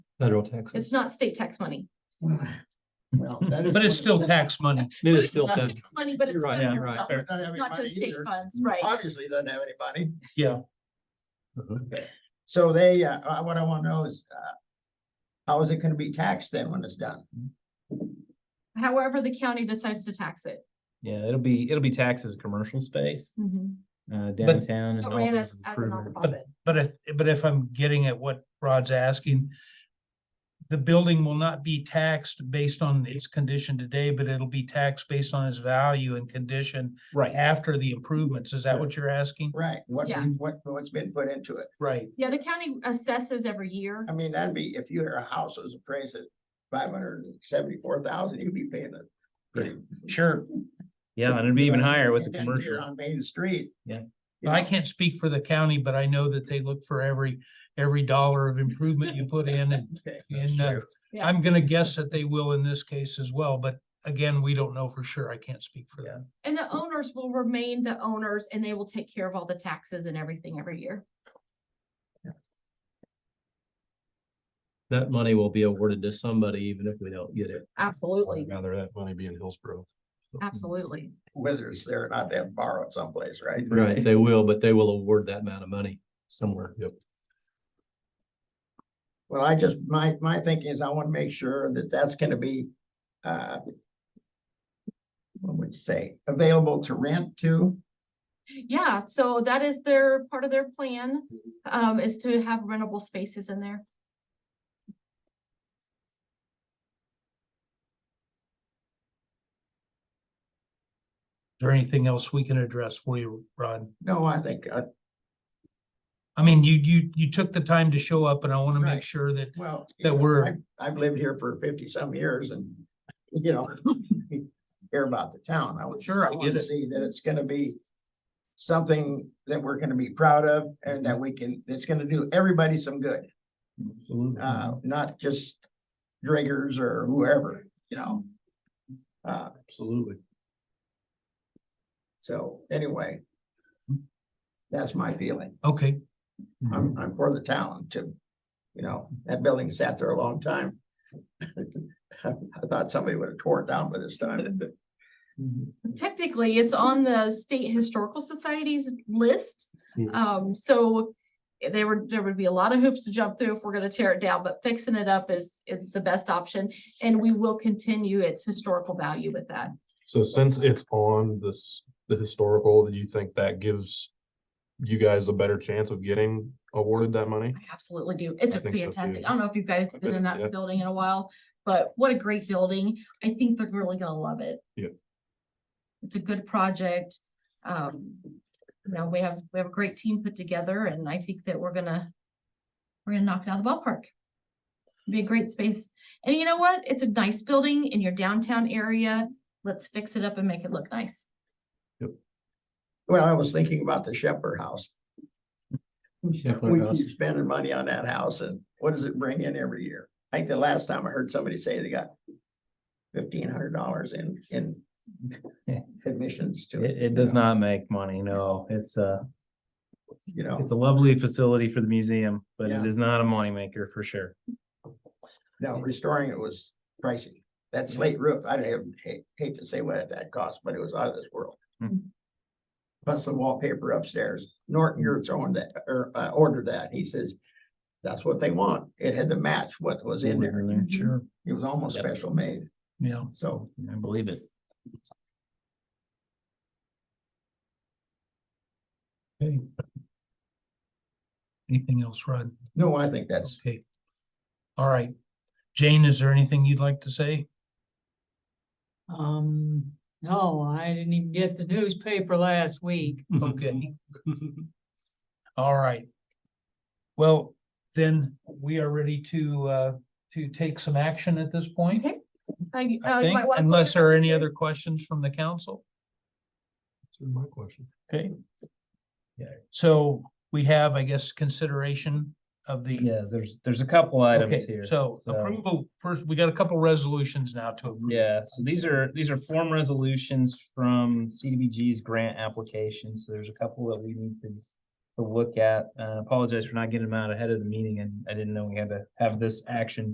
federal taxes. It's not state tax money. Well, that is But it's what- still tax money. It But is still not fed, tax Money, but it's. You're right, federal you're right. funds, Doesn't have any Not money just state either. funds, right? Obviously doesn't have any money. Yeah. So they, uh, uh, what I wanna know is, uh, how is it gonna be taxed then when it's done? However, the county decides to tax it. Yeah, it'll be, it'll be taxed as a commercial space, uh, downtown. and It all ran kinds as, of as a improvements. nonprofit. But if, but if I'm getting at what Rod's asking, the building will not be taxed based on its condition today, but it'll be taxed based on its value and condition Right, after the improvements. Is that what you're asking? Right, what, Yeah. we- what, what's been put into it? Right. Yeah, the county assesses every year. I mean, that'd be, if your house was appraised at five hundred and seventy-four thousand, you'd be paying it. pretty- Sure. yeah, and it'd be even higher with the And then here commercial. On Main Street. Yeah. You I know, can't speak for the county, but I know that they look for every, every dollar of improvement you put in and, okay, that's and uh, true. Yeah. I'm gonna guess that they will in this case as well, but again, we don't know for sure. I can't speak for them. And the owners will remain the owners and they will take care of all the taxes and everything every year. that money will be awarded to somebody even if we don't get it. Absolutely, Rather that money be in Hillsborough. absolutely. Whether it's there or not, they have borrowed someplace, right? Right, they will, but they will award that amount of money somewhere. Yep. Well, I just, my, my thinking is I want to make sure that that's gonna be, uh, what would you say, available to rent to? Yeah, so that is their, part of their plan, um, is to have rentable spaces in there. Is there anything else we can address for you, Rod? No, I think, uh, I mean, you, you, you took the time to show up and I want to Right. make sure that, well. you that know, we're, I've- I've lived here for fifty some years and, you know, hear about the town. I would Sure, I get wanna it. See that it's gonna be something that we're gonna be proud of and that we can, that's gonna do everybody some good, Ah, uh, Mm-hmm. not just driggers or whoever, you know? Uh, Absolutely. So anyway. Mm-hmm. That's my feeling. okay, I'm, I'm for the town to, you know, that building sat there a long time. I thought somebody would have tore it down by this time. Um, Technically, it's on the State Historical Society's list. Mhm. Um, so there were, there would be a lot of hoops to jump through if we're gonna tear it down, but fixing it up is, is the best option. And we will continue its historical value with that. So since it's on this, the historical, do you think that gives you guys a better chance of getting awarded that money? I absolutely do. It's I think so, too. fantastic. I don't know if you guys have been in Yeah. that building in a while, but what a great building. I think they're really gonna love it. Yeah. It's a good project. Um, you know, we have, we have a great team put together and I think that we're gonna, we're gonna knock it out of the ballpark. Be a great space. And you know what? It's a nice building in your downtown area. Let's fix it up and make it look nice. Well, I was thinking about the Shepherd House. We Scheffler House. keep spending money on that house and what does it bring in every year? I think the last time I heard somebody say they got fifteen hundred dollars in, in admissions to it. It, it does not make money, no, it's a, You know, it's a lovely facility for the museum, but Yeah. it is not a moneymaker for sure. no, restoring it was pricey. That slate roof, I don't hate, hate to say what that cost, but it was out of this world. Mhm. Plus the wallpaper upstairs. Norton Yurts owned that, or, uh, ordered that. He says, that's what they want. It had to match what was in there. sure, It was almost Yep. special made, yeah. so. I believe it. Okay. Anything else, Rod? No, I think that's, Okay. All right. Jane, is there anything you'd like to say? Um, no, I didn't even get the newspaper last week. Okay. All right. Well, then we are ready to, uh, to take some action at this point, Okay. I- uh, you I think, might wanna- unless there are any other questions from the council. That's my question. Okay. So we have, I guess, consideration of the. Yeah, there's, there's a couple items Okay, here. So so- approval, first, we got a couple resolutions now to approve. Yeah, so these are, these are form resolutions from CDBG's grant application, so there's a couple that we need to to look at. Uh, apologize for not getting them out ahead of the meeting, and I didn't know we had to have this action